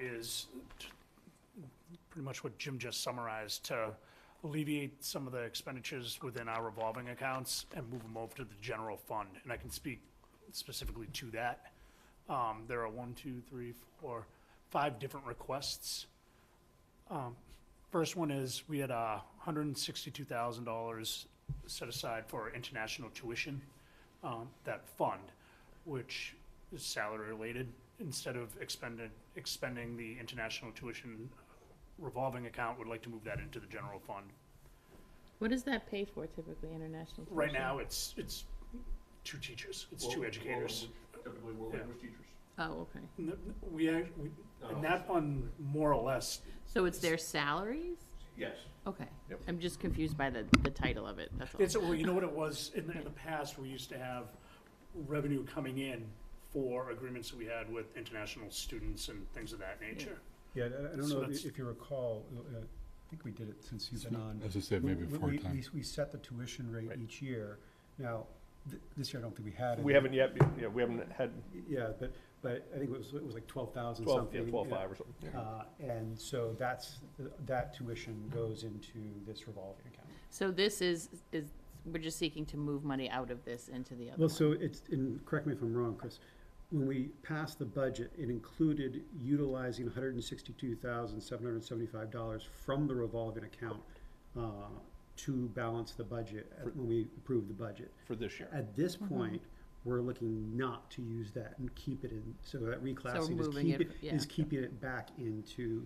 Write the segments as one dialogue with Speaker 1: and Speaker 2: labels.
Speaker 1: is t- pretty much what Jim just summarized, to alleviate some of the expenditures within our revolving accounts and move them over to the general fund. And I can speak specifically to that. Um, There are one, two, three, four, five different requests. Um, First one is, we had a hundred and sixty-two thousand dollars set aside for international tuition, um, that fund, which is salary-related. Instead of expended, expending the international tuition revolving account, would like to move that into the general fund.
Speaker 2: What does that pay for typically, international?
Speaker 1: Right
Speaker 2: tuition?
Speaker 1: now, it's, it's two teachers, it's two educators.
Speaker 3: Typically, world
Speaker 1: Yeah.
Speaker 3: language teachers.
Speaker 2: Oh, okay.
Speaker 1: N- We, act- we, and that fund, more or less,
Speaker 2: So it's their salaries?
Speaker 3: Yes.
Speaker 2: Okay.
Speaker 3: Yep.
Speaker 2: I'm just confused by the, the title of it, that's all.
Speaker 1: It's, well, you know what it was, in the, in the past, we used to have revenue coming in for agreements that we had with international students and things of that nature.
Speaker 4: Yeah, I- I don't
Speaker 1: So
Speaker 4: know
Speaker 1: that's-
Speaker 4: if you recall, uh, I think we did it since you've
Speaker 5: It's
Speaker 4: been
Speaker 5: not-
Speaker 4: on.
Speaker 5: As I said, maybe
Speaker 4: We-
Speaker 5: four
Speaker 4: we-
Speaker 5: times.
Speaker 4: We, we set the tuition rate
Speaker 6: Right.
Speaker 4: each year. Now, th- this year I don't think we had it.
Speaker 6: We haven't yet, yeah, we haven't had
Speaker 4: Yeah, but, but I think it was, it was like twelve thousand
Speaker 6: twelve,
Speaker 4: something.
Speaker 6: yeah, twelve
Speaker 4: yeah.
Speaker 6: five or something.
Speaker 4: Uh, and so that's, that tuition goes into this revolving account.
Speaker 2: So this is, is, we're just seeking to move money out of this into the other
Speaker 4: Well,
Speaker 2: one?
Speaker 4: so it's, and correct me if I'm wrong, Chris, when we passed the budget, it included utilizing hundred and sixty-two thousand, seven hundred and seventy-five dollars from the revolving account uh, to balance the budget, at- when we approved the budget.
Speaker 6: For this year.
Speaker 4: At this
Speaker 2: Mm-hmm.
Speaker 4: point, we're looking not to use that and keep it in, so that reclassing is
Speaker 2: moving
Speaker 4: keep
Speaker 2: it-
Speaker 4: it, is
Speaker 2: yeah.
Speaker 4: keeping it back into,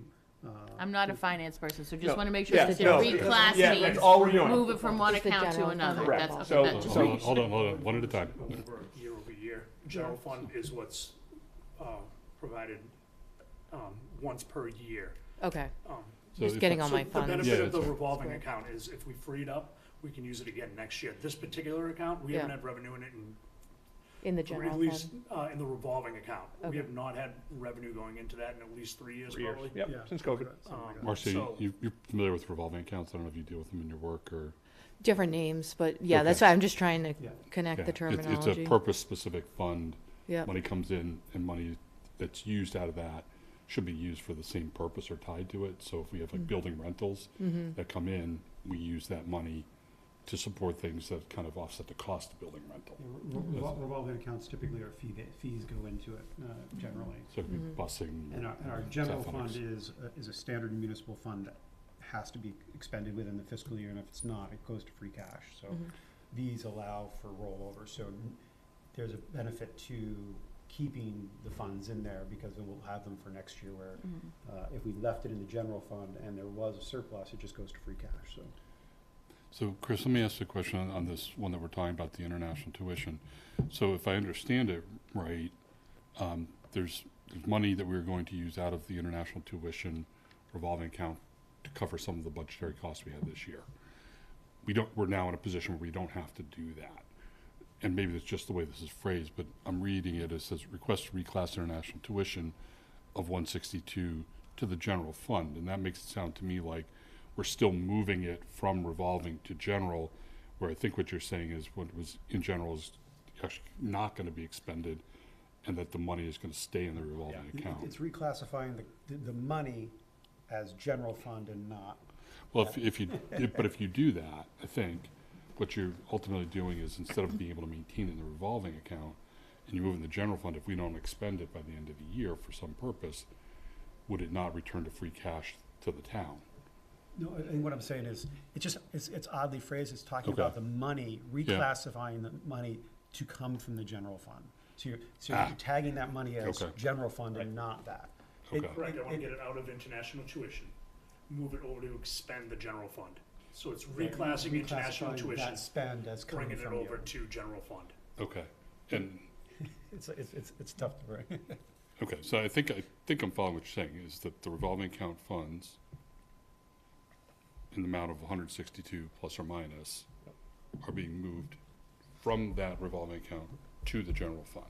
Speaker 4: uh,
Speaker 2: I'm not a finance person, so
Speaker 6: No.
Speaker 2: just want to make sure
Speaker 6: Yeah,
Speaker 2: that
Speaker 6: no,
Speaker 2: you're
Speaker 6: yeah, that's
Speaker 2: reclassing,
Speaker 6: all we're doing.
Speaker 2: move it from one
Speaker 7: It's the
Speaker 2: account to
Speaker 7: general
Speaker 2: another.
Speaker 7: fund.
Speaker 6: Correct.
Speaker 2: That's,
Speaker 6: So-
Speaker 2: okay, that just
Speaker 5: Hold on,
Speaker 2: makes
Speaker 5: hold on, hold on, one at a time.
Speaker 1: Over, year over year, general fund is what's, uh, provided, um, once per year.
Speaker 7: Okay,
Speaker 1: Um,
Speaker 5: So
Speaker 7: just
Speaker 5: if-
Speaker 7: getting all my
Speaker 1: So the
Speaker 7: funds.
Speaker 1: benefit
Speaker 5: Yeah,
Speaker 1: of the
Speaker 5: that's right.
Speaker 1: revolving
Speaker 7: Square.
Speaker 1: account is if we free it up, we can use it again next year. This particular account, we haven't
Speaker 7: Yeah.
Speaker 1: had revenue in it in
Speaker 7: In the
Speaker 1: Or
Speaker 7: general
Speaker 1: at
Speaker 7: fund.
Speaker 1: least, uh, in the revolving account. We
Speaker 7: Okay.
Speaker 1: have not had revenue going into that in at least three years,
Speaker 6: Three years,
Speaker 1: probably.
Speaker 6: yep,
Speaker 4: Yeah.
Speaker 6: since COVID.
Speaker 4: something like that.
Speaker 5: Marcia,
Speaker 1: So-
Speaker 5: you- you- you're familiar with revolving accounts. I don't know if you deal with them in your work or.
Speaker 7: Different names, but yeah, that's
Speaker 5: Okay.
Speaker 7: why I'm just trying to
Speaker 4: Yeah.
Speaker 7: connect
Speaker 5: Yeah,
Speaker 7: the
Speaker 5: it's-
Speaker 7: terminology.
Speaker 5: It's a purpose-specific fund.
Speaker 7: Yep.
Speaker 5: Money comes in and money that's used out of that should be used for the same purpose or tied to it. So if we have
Speaker 4: Mm-hmm.
Speaker 5: like building rentals
Speaker 7: Mm-hmm.
Speaker 5: that come in, we use that money to support things that kind of offset the cost of building rental.
Speaker 4: Yeah, re- revol- Revolving accounts typically are fee, fees go into it, uh, generally.
Speaker 5: So it could
Speaker 7: Mm-hmm.
Speaker 5: be busing.
Speaker 4: And our, and our general fund
Speaker 5: athletics.
Speaker 4: is, a- is a standard municipal fund that has to be expended within the fiscal year, and if it's not, it goes to free cash, so these allow for rollover, so n- there's a benefit to keeping the funds in there, because then we'll have them for next year, where, uh, if we left it in the general fund and there was a surplus, it just goes to free cash, so.
Speaker 5: So Chris, let me ask you a question on- on this one that we're talking about, the international tuition. So if I understand it right, um, there's, there's money that we're going to use out of the international tuition revolving account to cover some of the budgetary costs we had this year. We don't, we're now in a position where we don't have to do that. And maybe that's just the way this is phrased, but I'm reading it, it says request to reclass international tuition of one sixty-two to the general fund, and that makes it sound to me like we're still moving it from revolving to general, where I think what you're saying is what was in general is actually not gonna be expended, and that the money is gonna stay in the revolving
Speaker 4: It-
Speaker 5: account.
Speaker 4: It's reclassifying the- the, the money as general fund and not
Speaker 5: Well, if, if you, if- but if you do that, I think what you're ultimately doing is instead of being able to maintain it in the revolving account and you move it in the general fund, if we don't expend it by the end of the year for some purpose, would it not return to free cash to the town?
Speaker 4: No, I think what I'm saying is, it's just, it's, it's oddly phrased, it's talking
Speaker 5: Okay.
Speaker 4: about the money, reclassifying the money to come from the general fund. So you're, so you're
Speaker 5: Ah.
Speaker 4: tagging that money as
Speaker 5: Okay.
Speaker 4: general fund and not that. It-
Speaker 5: Okay.
Speaker 1: Correct, I wanna
Speaker 4: it-
Speaker 1: get it out of international tuition, move it over to expend the general fund. So it's reclassing international
Speaker 4: reclassifying
Speaker 1: tuition,
Speaker 4: That spend as coming
Speaker 1: bringing
Speaker 4: from
Speaker 1: it
Speaker 4: the
Speaker 1: over
Speaker 4: other.
Speaker 1: to general fund.
Speaker 5: Okay, and,
Speaker 4: It's, it's, it's, it's tough to break.
Speaker 5: okay, so I think, I think I'm following what you're saying, is that the revolving account funds in the amount of one hundred sixty-two plus or minus are being moved from that revolving account to the general fund,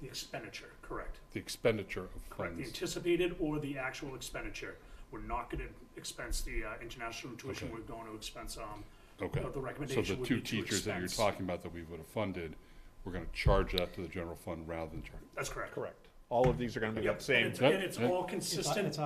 Speaker 1: The expenditure, correct.
Speaker 5: the expenditure of
Speaker 1: Correct, the
Speaker 5: funds.
Speaker 1: anticipated or the actual expenditure. We're not gonna expense the, uh, international tuition,
Speaker 5: Okay.
Speaker 1: we're going to expense, um,
Speaker 5: Okay.
Speaker 1: uh, the
Speaker 5: So
Speaker 1: recommendation
Speaker 5: the
Speaker 1: would
Speaker 5: two
Speaker 1: be to
Speaker 5: teachers that you're
Speaker 1: expense.
Speaker 5: talking about that we would have funded, we're gonna charge that to the general fund rather than charge.
Speaker 1: That's correct.
Speaker 6: Correct.
Speaker 8: all of these are gonna be
Speaker 1: Yep,
Speaker 8: the same.
Speaker 1: And it's- and it's
Speaker 6: Yep.
Speaker 1: all consistent.